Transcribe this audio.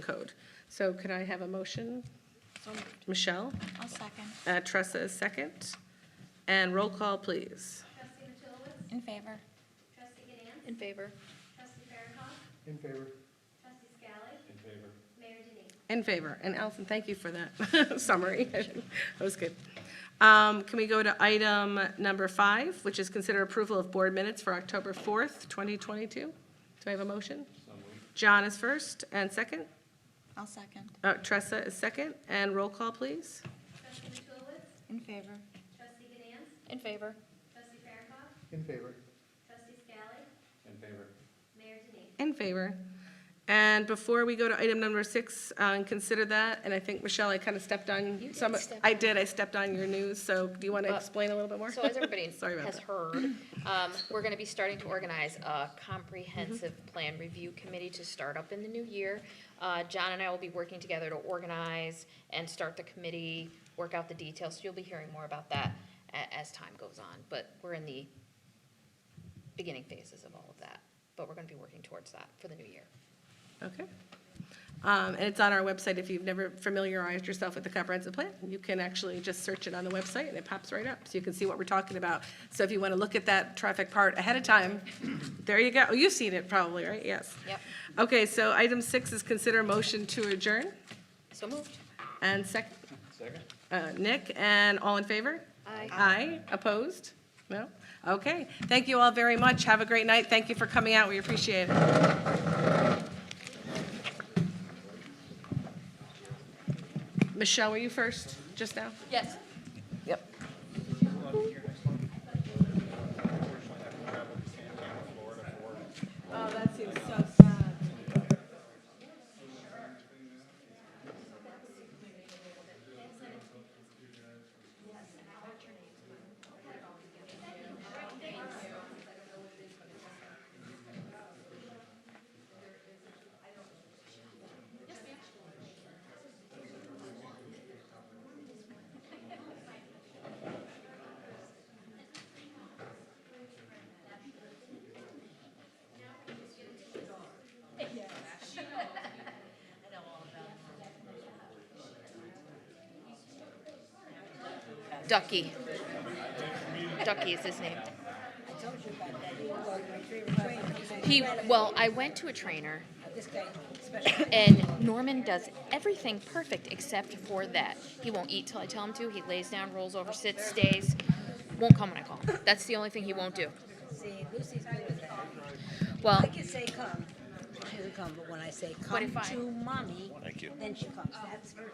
code. So could I have a motion? Michelle, I'll second. uh, Tressa is second, and roll call, please. Trustee Matulowicz, In favor. trustee Ganance, In favor. trustee Farrakhan, In favor. trustee Scally, In favor. mayor Denine. In favor, and Allison, thank you for that summary, that was good. Um, Can we go to item number five, which is consider approval of board minutes for October 4th, 2022? Do I have a motion? John is first and second, I'll second. Uh, Tressa is second, and roll call, please. Trustee Matulowicz, In favor. trustee Ganance, In favor. trustee Farrakhan, In favor. trustee Scally, In favor. mayor Denine. In favor. And before we go to item number six, uh, and consider that, and I think, Michelle, I kind of stepped on some, I did, I stepped on your news, so do you want to But- explain a little bit more? So as everybody Sorry about has that. heard, um, we're gonna be starting to organize a comprehensive Mm-hmm. plan review committee to start up in the new year. Uh, John and I will be working together to organize and start the committee, work out the details, so you'll be hearing more about that a- as time goes on, but we're in the beginning phases of all of that, but we're gonna be working towards that for the new year. Okay. Um, And it's on our website, if you've never familiarized yourself with the comprehensive plan, you can actually just search it on the website, and it pops right up, so you can see what we're talking about. So if you want to look at that traffic part ahead of time, there you go. Oh, You've seen it probably, right? Yes. Yep. Okay, so item six is consider motion to adjourn, So moved. and second, Second? Uh, Nick, and all in favor? Aye. Aye, opposed? No? Okay, thank you all very much, have a great night, thank you for coming out, we appreciate it. Michelle, were you first, just now? Yes. Yep. Oh, that seems so sad. Ducky. Ducky is his name. He, well, I went to a trainer. And Norman does everything perfect except for that. He won't eat till I tell him to. He lays down, rolls over, sits, stays. Won't come when I call. him. That's the only thing he won't do. See, Lucy's good with that. Well, I can say come, she doesn't come, but when I say if come I- to mommy, then she comes. That's